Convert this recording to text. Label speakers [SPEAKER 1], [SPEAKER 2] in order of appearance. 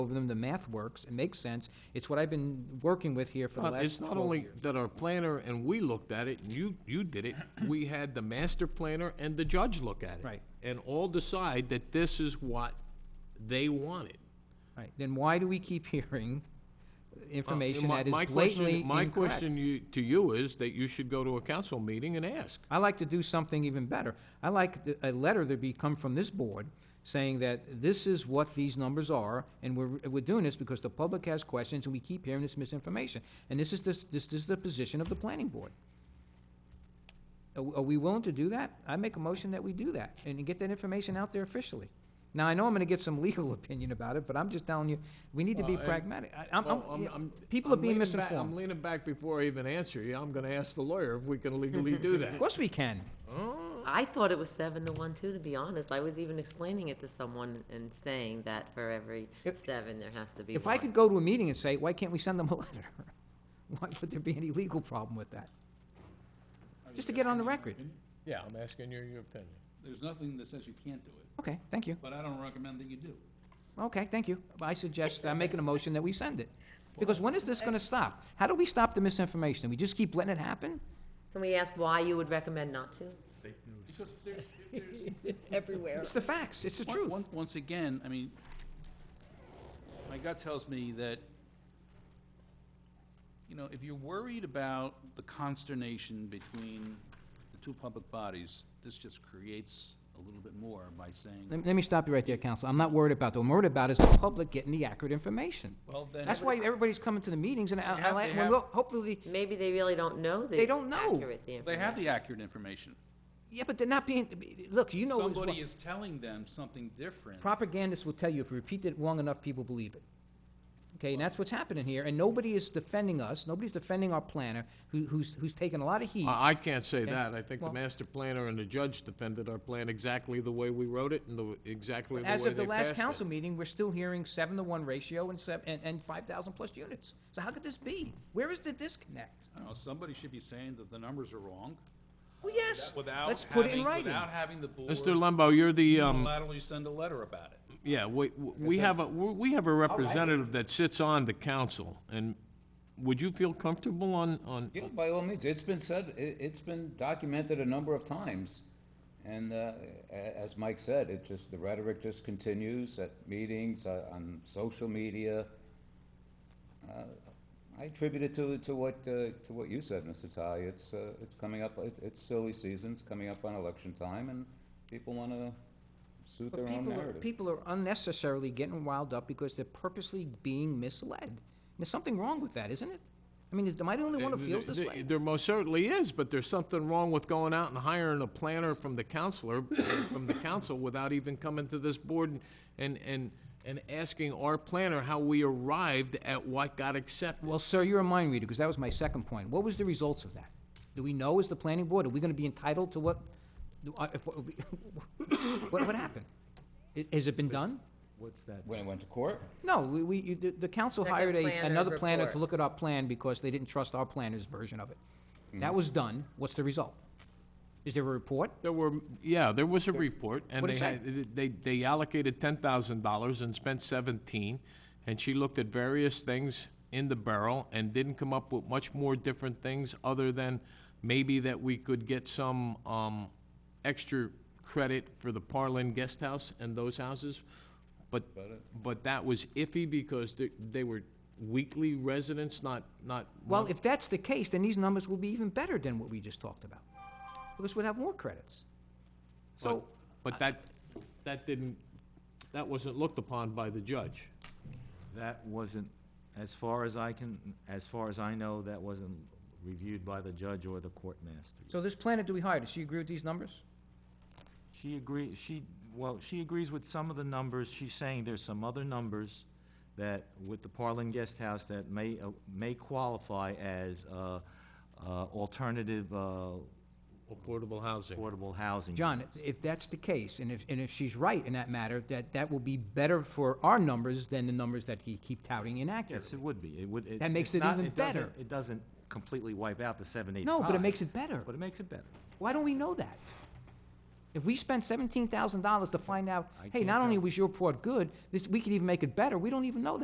[SPEAKER 1] over them, the math works, it makes sense. It's what I've been working with here for the
[SPEAKER 2] Uh,
[SPEAKER 1] last
[SPEAKER 2] It's not
[SPEAKER 1] twelve
[SPEAKER 2] only
[SPEAKER 1] years.
[SPEAKER 2] that our planner and we looked at it, and you, you did it, we had the master planner and the judge look at it.
[SPEAKER 1] Right.
[SPEAKER 2] And all decide that this is what they wanted.
[SPEAKER 1] Right, then why do we keep hearing
[SPEAKER 2] Uh,
[SPEAKER 1] information
[SPEAKER 2] my-
[SPEAKER 1] that is
[SPEAKER 2] my question-
[SPEAKER 1] blatantly
[SPEAKER 2] My
[SPEAKER 1] incorrect?
[SPEAKER 2] question you- to you is that you should go to a council meeting and ask.
[SPEAKER 1] I like to do something even better. I like th- a letter to be, come from this board saying that this is what these numbers are, and we're, we're doing this because the public has questions and we keep hearing this misinformation. And this is, this, this is the position of the planning board. Are we- are we willing to do that? I make a motion that we do that and get that information out there officially. Now, I know I'm gonna get some legal opinion about it, but I'm just telling you, we need to be
[SPEAKER 2] Well, and-
[SPEAKER 1] pragmatic. I- I'm, I'm-
[SPEAKER 2] Well, I'm-
[SPEAKER 1] yeah,
[SPEAKER 2] I'm-
[SPEAKER 1] people are
[SPEAKER 2] I'm
[SPEAKER 1] being
[SPEAKER 2] leaning back- I'm
[SPEAKER 1] misinformed.
[SPEAKER 2] leaning back before I even answer you. I'm gonna ask the lawyer if we can legally do
[SPEAKER 1] Of
[SPEAKER 2] that.
[SPEAKER 1] course we can.
[SPEAKER 3] I thought it was seven to one too, to be honest. I was even explaining it to someone and saying that for every
[SPEAKER 1] If-
[SPEAKER 3] seven, there has to be
[SPEAKER 1] If I
[SPEAKER 3] one.
[SPEAKER 1] could go to a meeting and say, why can't we send them a letter? Why would there be any legal problem with that? Just to get on the record.
[SPEAKER 2] Yeah, I'm asking you your opinion.
[SPEAKER 4] There's nothing that says you can't do it,
[SPEAKER 1] Okay, thank you.
[SPEAKER 4] but I don't recommend that you do.
[SPEAKER 1] Okay, thank you. I suggest, I'm making a motion that we send it. Because when is this gonna stop? How do we stop the misinformation? We just keep letting it happen?
[SPEAKER 3] Can we ask why you would recommend not to?
[SPEAKER 4] Because there's, there's,
[SPEAKER 5] everywhere.
[SPEAKER 1] It's the facts, it's the
[SPEAKER 4] Once-
[SPEAKER 1] truth.
[SPEAKER 4] once- Once again, I mean, my gut tells me that, you know, if you're worried about the consternation between the two public bodies, this just creates a little bit more by saying,
[SPEAKER 1] Let let me stop you right there, counsel. I'm not worried about that. What I'm worried about is the public getting the accurate information.
[SPEAKER 4] well, then.
[SPEAKER 1] That's why everybody's coming to the meetings and I,
[SPEAKER 4] They have-
[SPEAKER 1] I-
[SPEAKER 4] they
[SPEAKER 1] well,
[SPEAKER 4] have-
[SPEAKER 1] hopefully,
[SPEAKER 3] Maybe they really don't know the
[SPEAKER 1] They don't know.
[SPEAKER 3] accurate the
[SPEAKER 4] They have
[SPEAKER 3] information.
[SPEAKER 4] the accurate information.
[SPEAKER 1] yeah, but they're not being, look, you know. as well-
[SPEAKER 4] Somebody is telling them something different.
[SPEAKER 1] propagandists will tell you if you repeat it long enough, people believe it. Okay, and that's what's happening here, and nobody is defending us, nobody's defending our planner, who, who's, who's taken a lot of heat.
[SPEAKER 2] I, I can't say
[SPEAKER 1] Okay.
[SPEAKER 2] that. I think the
[SPEAKER 1] Well-
[SPEAKER 2] master planner and the judge defended our plan exactly the way we wrote it and the, exactly the way they
[SPEAKER 1] As
[SPEAKER 2] passed
[SPEAKER 1] of the last
[SPEAKER 2] it.
[SPEAKER 1] council meeting, we're still hearing seven to one ratio and seven, and, and five thousand plus units. So how could this be? Where is the disconnect?
[SPEAKER 4] I don't know, somebody should be saying that the numbers are wrong.
[SPEAKER 1] Well, yes,
[SPEAKER 4] Without
[SPEAKER 1] let's put it in
[SPEAKER 4] having-
[SPEAKER 1] writing.
[SPEAKER 4] Without having the board
[SPEAKER 2] Mr. Lumbo, you're the, um,
[SPEAKER 4] unilaterally send a letter about it.
[SPEAKER 2] yeah, we, we have a, we we have a representative that sits on the council, and would you feel comfortable on, on?
[SPEAKER 6] Yeah, by all means, it's been said, it, it's been documented a number of times. And, uh, a- as Mike said, it just, the rhetoric just continues at meetings, uh, on social media. Uh, I attribute it to, to what, uh, to what you said, Mr. Ty, it's, uh, it's coming up, it- it's silly season, it's coming up on election time, and people wanna suit their
[SPEAKER 1] But
[SPEAKER 6] own
[SPEAKER 1] people are,
[SPEAKER 6] narrative.
[SPEAKER 1] people are unnecessarily getting riled up because they're purposely being misled. There's something wrong with that, isn't it? I mean, is, am I the only one who feels this
[SPEAKER 2] There-
[SPEAKER 1] way?
[SPEAKER 2] There most certainly is, but there's something wrong with going out and hiring a planner from the counselor, from the council, without even coming to this board and, and, and asking our planner how we arrived at what got accepted.
[SPEAKER 1] Well, sir, you're a mind reader, because that was my second point. What was the results of that? Do we know as the planning board, are we gonna be entitled to what, do I- if- what, what happened? I- Has it been done?
[SPEAKER 6] When it went to court?
[SPEAKER 1] No, we, we, you- the, the council
[SPEAKER 3] Second
[SPEAKER 1] hired a,
[SPEAKER 3] planner
[SPEAKER 1] another planner to
[SPEAKER 3] report.
[SPEAKER 1] look at our plan because they didn't trust our planner's version of it. That was done. What's the result? Is there a report?
[SPEAKER 2] There were, yeah, there was a report, and
[SPEAKER 1] What'd
[SPEAKER 2] they
[SPEAKER 1] it say?
[SPEAKER 2] had, they, they allocated ten thousand dollars and spent seventeen, and she looked at various things in the barrel and didn't come up with much more different things other than maybe that we could get some, um, extra credit for the Parlin Guest House and those houses, but, but that was iffy because they, they were weekly residents, not, not.
[SPEAKER 1] Well,
[SPEAKER 2] month-
[SPEAKER 1] if that's the case, then these numbers will be even better than what we just talked about, because we'll have more credits. So,
[SPEAKER 2] But that, that didn't, that wasn't looked upon by the judge.
[SPEAKER 7] That wasn't, as far as I can, as far as I know, that wasn't reviewed by the judge or the court master.
[SPEAKER 1] so this planner do we hire, does she agree with these numbers?
[SPEAKER 7] She agree, she, well, she agrees with some of the numbers. She's saying there's some other numbers that, with the Parlin Guest House, that may, uh, may qualify as uh, uh, alternative uh,
[SPEAKER 2] Affordable housing.
[SPEAKER 7] affordable housing.
[SPEAKER 1] John, if that's the case, and if, and if she's right in that matter, that, that will be better for our numbers than the numbers that he keep touting
[SPEAKER 7] Yes,
[SPEAKER 1] inaccurately.
[SPEAKER 7] it would be. It would. it-
[SPEAKER 1] That makes it
[SPEAKER 7] it's not-
[SPEAKER 1] even
[SPEAKER 7] doesn't-
[SPEAKER 1] better.
[SPEAKER 7] It doesn't completely wipe out the 785.
[SPEAKER 1] No, but it makes it better.
[SPEAKER 7] But it makes it better.
[SPEAKER 1] Why don't we know that? If we spent seventeen thousand dollars to find out,
[SPEAKER 7] I
[SPEAKER 1] hey,
[SPEAKER 7] can't
[SPEAKER 1] not only
[SPEAKER 7] tell.
[SPEAKER 1] was your port good, this, we could even make it better, we don't even know that.